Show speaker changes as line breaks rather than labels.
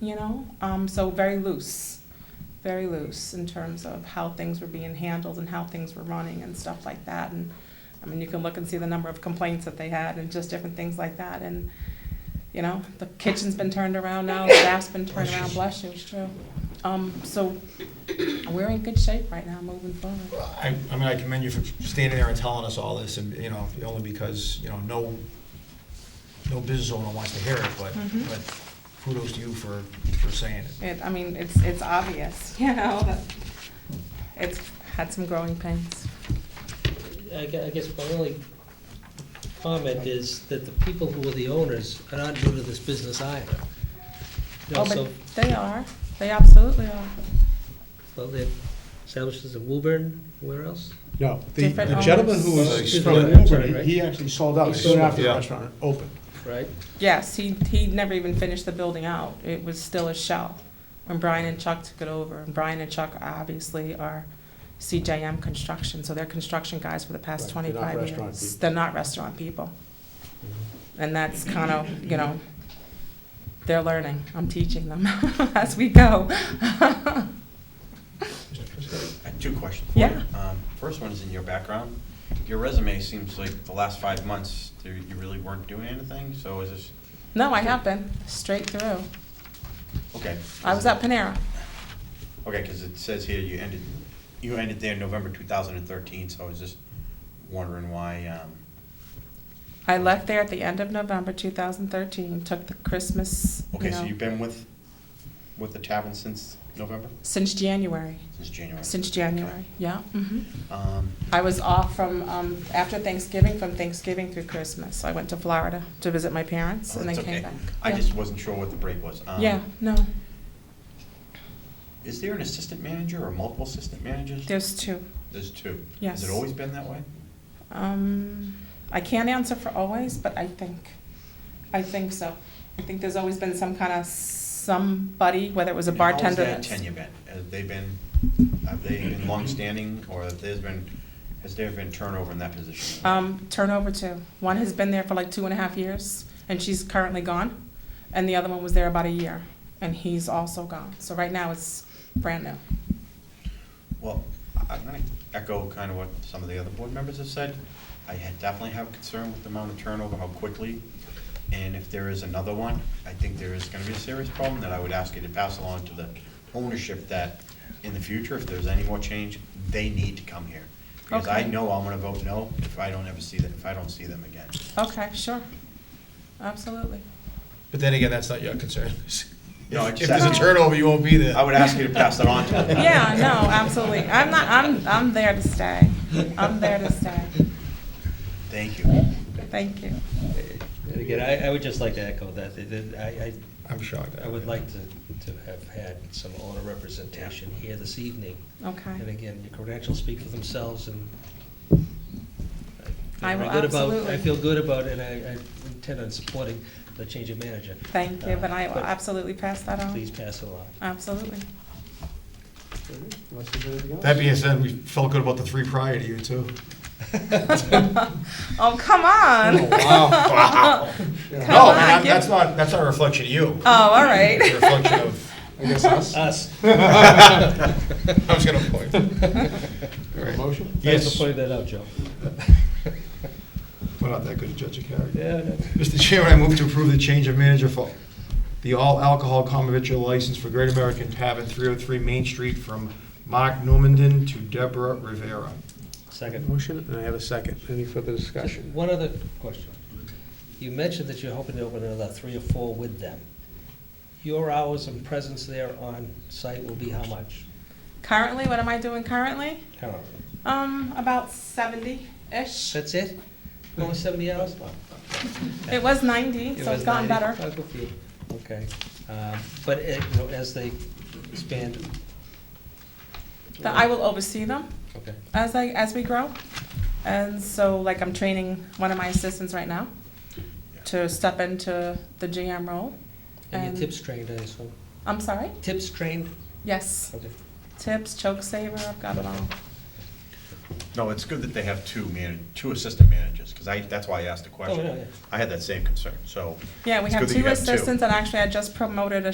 you know? Um, so very loose, very loose in terms of how things were being handled and how things were running and stuff like that. And, I mean, you can look and see the number of complaints that they had and just different things like that. And, you know, the kitchen's been turned around now, the staff's been turned around, bless you, it's true. Um, so we're in good shape right now, moving forward.
I, I mean, I commend you for standing there and telling us all this, and, you know, only because, you know, no, no business owner wants to hear it, but,
Mhm.
but kudos to you for, for saying it.
It, I mean, it's, it's obvious, you know, that it's had some growing pains.
I gue- I guess my only comment is that the people who are the owners are not new to this business either. You know,
Oh,
so,
but they are, they absolutely are.
well, they established this in Woburn, where else?
No, the
Different
the gentleman who
owners.
was
He's
from
from Woburn,
Woburn,
right?
he actually sold out
He
soon
sold,
after the
yeah.
restaurant opened.
Right.
Yes, he, he never even finished the building out. It was still a shell when Brian and Chuck took it over. And Brian and Chuck obviously are CJM Construction, so they're construction guys for the past
Right, they're not
25
restaurant
years.
people. Mm-hmm.
They're not restaurant people. And that's kind of, you know, they're learning. I'm teaching them as we go.
I have Two questions.
Yeah.
Um, First one is in your background. Your resume seems like the last five months, there- you really weren't doing anything, so is this,
No, I have been, straight through.
okay.
I was at Panera.
Okay, because it says here you ended, you ended there in November 2013, so I was just wondering why, um,
I left there at the end of November 2013, took the Christmas, you
okay, so
know,
you've been with, with the tavern since November?
since January.
Since January?
Since January, yeah. mhm.
Um,
I was off from, um, after Thanksgiving, from Thanksgiving through Christmas. I went to Florida to visit my parents
oh,
and then
that's
came
okay.
back.
I
Yeah.
just wasn't sure what the break was. Um,
Yeah, no,
Is there an assistant manager or multiple assistant managers?
there's two.
There's two.
Yes.
Has it always been that way?
Um, I can't answer for always, but I think, I think so. I think there's always been some kind of somebody, whether it was a
And how has
bartender.
that
that's-
tenure been? Have they been, have they been longstanding, or have there's been, has there been turnover in that position?
Um, turnover two. One has been there for like two and a half years, and she's currently gone. And the other one was there about a year, and he's also gone. So right now it's brand new.
Well, I- I'm gonna echo kind of what some of the other board members have said. I had- definitely have concern with the amount of turnover, how quickly, and if there is another one, I think there is gonna be a serious problem that I would ask you to pass along to the ownership that in the future, if there's any more change, they need to come here. Because I
Okay.
know I'm gonna vote no if I don't ever see them, if I don't see them again.
Okay, sure. Absolutely.
But then again, that's not your concern.
No, I
If
just-
there's a turnover, you won't be there.
I would ask you to pass that on to them.
Yeah, no, absolutely. I'm not, I'm, I'm there to stay. I'm there to stay.
Thank you.
Thank you.
And again, I, I would just like to echo that, that- that I,
I'm shocked.
I, I would like to, to have had some owner representation here this evening. And
Okay.
again, your credentials speak for themselves and.
I will
feel good about-
absolutely-
I feel good about it, and I, I intend on supporting the change of manager.
Thank you, but I will
But
absolutely pass that on.
Please pass it along.
Absolutely.
Unless there's anything else?
That being said, we felt good about the three prior to you, too.
Oh, come on.
Wow. No, I
Yeah.
mean,
on,
I'm-
give-
that's not, that's not a reflection of you.
Oh, all
It's a
right.
reflection of,
I guess us,
Us.
I was gonna point.
a motion?
Thanks
Yes.
for pointing that out, Joe.
We're not that good a judge of character.
Yeah, no.
Mr. Chairman, I move to approve the change of manager for the all alcohol common vitriol license for Great American Tavern, 303 Main Street, from Mark Normandin to Deborah Rivera.
Second.
Motion, and I have a second. Any further
Just
discussion?
one other question. You mentioned that you're hoping to open another three or four with them. Your hours and presence there on site will be how much?
Currently, what am I doing currently?
Currently.
Um, about seventy-ish.
That's it? Only seventy hours? Wow.
It was ninety, so it's
was
gotten
90.
better.
Oh, good for you. Okay, Um, but it- you know, as they expand,
That I will oversee them.
okay,
as I as we grow. And so like I'm training one of my assistants right now to step into the GM role.
and
And-
your tips trained, I assume?
I'm sorry?
Tips trained?
Yes.
Okay.
Tips, choke saver, I've got it all.
No, it's good that they have two man, two assistant managers, because I, that's why I asked the
Oh, yeah,
question.
yeah.
I had that same concern, so.
Yeah, we
It's
have
good that you
two
have two.
assistants and actually I just promoted a